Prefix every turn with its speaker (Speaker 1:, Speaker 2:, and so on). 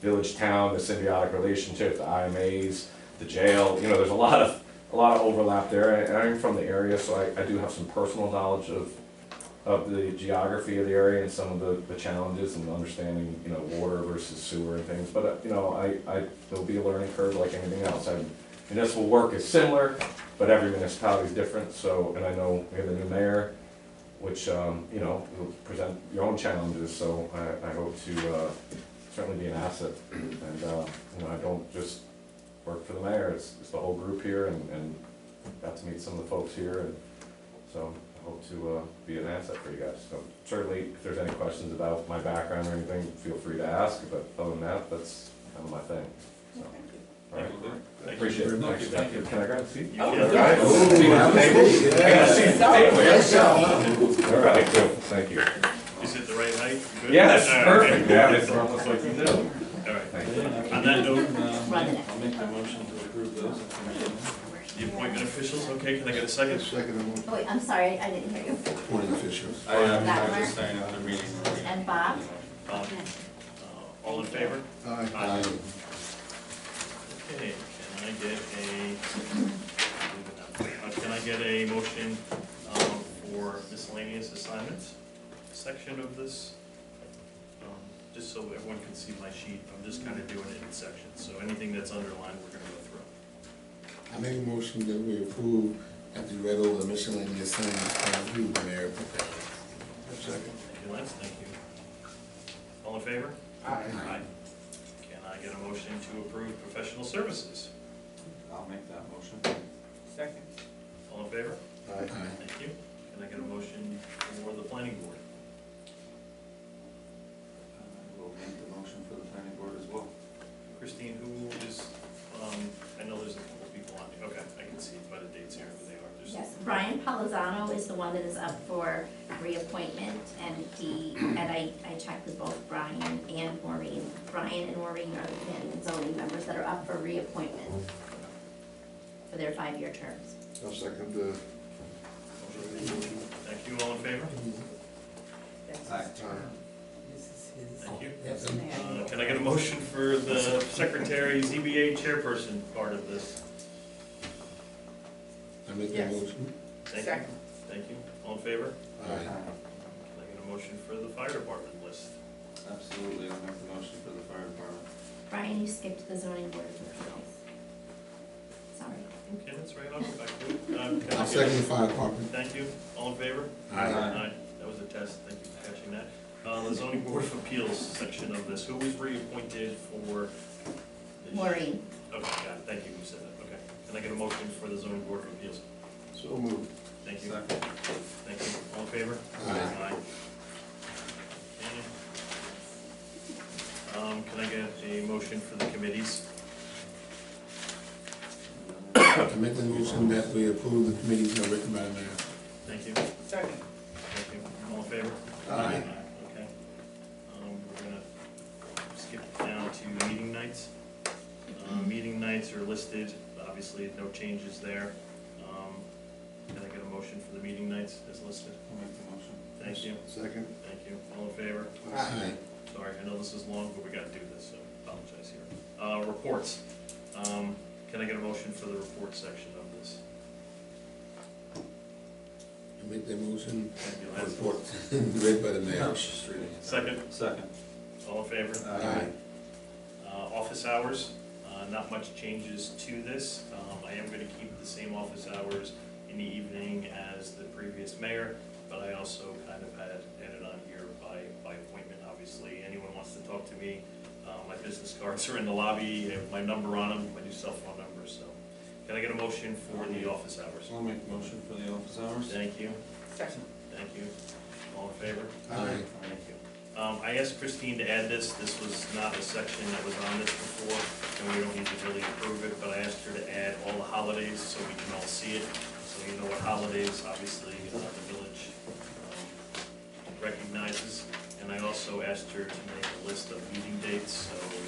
Speaker 1: village town, the symbiotic relationship, the IMAs, the jail, you know, there's a lot of, a lot of overlap there, and I'm from the area, so I, I do have some personal knowledge of, of the geography of the area and some of the, the challenges and understanding, you know, water versus sewer and things, but, uh, you know, I, I, there'll be a learning curve like anything else, I, municipal work is similar, but every municipality is different, so, and I know we have a new mayor, which, um, you know, will present your own challenges, so I, I hope to, uh, certainly be an asset. And, uh, you know, I don't just work for the mayor, it's, it's the whole group here and, and got to meet some of the folks here and so I hope to, uh, be an asset for you guys. So certainly, if there's any questions about my background or anything, feel free to ask, but other than that, that's kind of my thing, so. All right, appreciate it.
Speaker 2: Thank you, thank you.
Speaker 1: Can I grab a seat?
Speaker 2: You
Speaker 1: All
Speaker 2: can.
Speaker 1: right. I got a seat at the table here. All right, cool, thank you.
Speaker 2: Is it the right height? Good? Uh,
Speaker 1: Yes,
Speaker 2: All right.
Speaker 1: perfect, yeah, it's almost like you know.
Speaker 2: All right,
Speaker 1: Thank you.
Speaker 2: on that note,
Speaker 3: I'll make the motion to approve those.
Speaker 2: the appointment officials, okay, can I get a second?
Speaker 4: Second amendment,
Speaker 5: Oh, wait, I'm sorry, I didn't hear you.
Speaker 4: appointing officials.
Speaker 3: I am, I'm just saying, other meetings.
Speaker 5: And Bob?
Speaker 2: Um, uh, All in favor?
Speaker 4: Aye.
Speaker 2: Aye. Okay, can I get a, uh, can I get a motion um, for miscellaneous assignments section of this? Um, Just so everyone can see my sheet, I'm just kind of doing it in sections, so anything that's underlined, we're gonna go through.
Speaker 4: I make a motion that we approve after you read over the miscellaneous things, uh, you, the mayor, prepared. Second.
Speaker 2: Thank you, Lance, thank you. All in favor? Aye. Can I get a motion to approve professional services?
Speaker 3: I'll make that motion. Second.
Speaker 2: All in favor?
Speaker 4: Aye.
Speaker 2: Thank you. Can I get a motion for the planning board?
Speaker 3: I will Uh, make the motion for the planning board as well.
Speaker 2: Christine, who is, um, I know there's a couple people on here, okay, I can see by the dates here who they are, there's.
Speaker 5: Yes, Brian Palazzano is the one that is up for reappointment, and he, and I, I checked with both Brian and Maureen. Brian and Maureen are the planning and zoning members that are up for reappointment for their five-year terms.
Speaker 4: I'll second the.
Speaker 2: Thank you, all in favor?
Speaker 3: Aye.
Speaker 2: Thank you.
Speaker 4: Yes.
Speaker 2: Uh, Can I get a motion for the secretary, ZBA chairperson part of this?
Speaker 4: I make the
Speaker 6: Yes.
Speaker 4: motion.
Speaker 2: Thank you.
Speaker 6: Second.
Speaker 2: Thank you, all in favor?
Speaker 4: Aye.
Speaker 3: Uh,
Speaker 2: Can I get a motion for the fire department list?
Speaker 3: Absolutely, I'll make the motion for the fire department.
Speaker 5: Brian, you skipped the zoning board of appeals. Sorry.
Speaker 2: Okay, that's right, I'll go back to it. Uh, can I
Speaker 4: I'll
Speaker 2: get-
Speaker 4: second the fire department.
Speaker 2: Thank you, all in favor?
Speaker 3: Aye.
Speaker 2: That was a test, thank you for catching that. Uh, the zoning board of appeals section of this, who was reappointed for? this-
Speaker 5: Maureen,
Speaker 2: Okay, got it, thank you, who said that, okay. Can I get a motion for the zoning board of appeals?
Speaker 4: So moved.
Speaker 2: Thank you,
Speaker 3: Second.
Speaker 2: thank you, all in favor?
Speaker 4: Aye.
Speaker 2: Aye. Um, can I get a motion for the committees?
Speaker 4: I make the motion that we approve the committees that are written by the mayor.
Speaker 2: Thank you,
Speaker 6: Second.
Speaker 2: thank you, all in favor?
Speaker 4: Aye.
Speaker 2: Okay. Um, we're gonna skip down to meeting nights. Uh, meeting nights are listed, obviously, no changes there. Um, can I get a motion for the meeting nights as listed?
Speaker 3: I'll make the motion.
Speaker 2: Thank you,
Speaker 4: Second.
Speaker 2: thank you, all in favor?
Speaker 4: Aye.
Speaker 2: Sorry, I know this is long, but we gotta do this, so apologize here. Uh, reports, um, can I get a motion for the report section of this?
Speaker 4: I make the motion,
Speaker 2: Thank you, Lance.
Speaker 4: report, read by the
Speaker 3: I
Speaker 4: mayor.
Speaker 3: was just reading it.
Speaker 2: Second,
Speaker 3: Second.
Speaker 2: all in favor?
Speaker 4: Aye.
Speaker 2: Uh, Office hours, uh, not much changes to this. Um, I am gonna keep the same office hours in the evening as the previous mayor, but I also kind of had added on here by, by appointment, obviously. Anyone wants to talk to me, uh, my business cards are in the lobby, I have my number on them, my new cell phone number, so. Can I get a motion for the office hours?
Speaker 3: So I'll make the motion for the office hours.
Speaker 2: Thank you,
Speaker 6: Second.
Speaker 2: thank you. All in favor?
Speaker 4: Aye.
Speaker 2: Thank you. Um, I asked Christine to add this, this was not a section that was on this before, and we don't need to really approve it, but I asked her to add all the holidays so we can all see it. So you know what holidays, obviously, uh, the village um, recognizes. And I also asked her to make a list of meeting dates, so uh, Um, uh,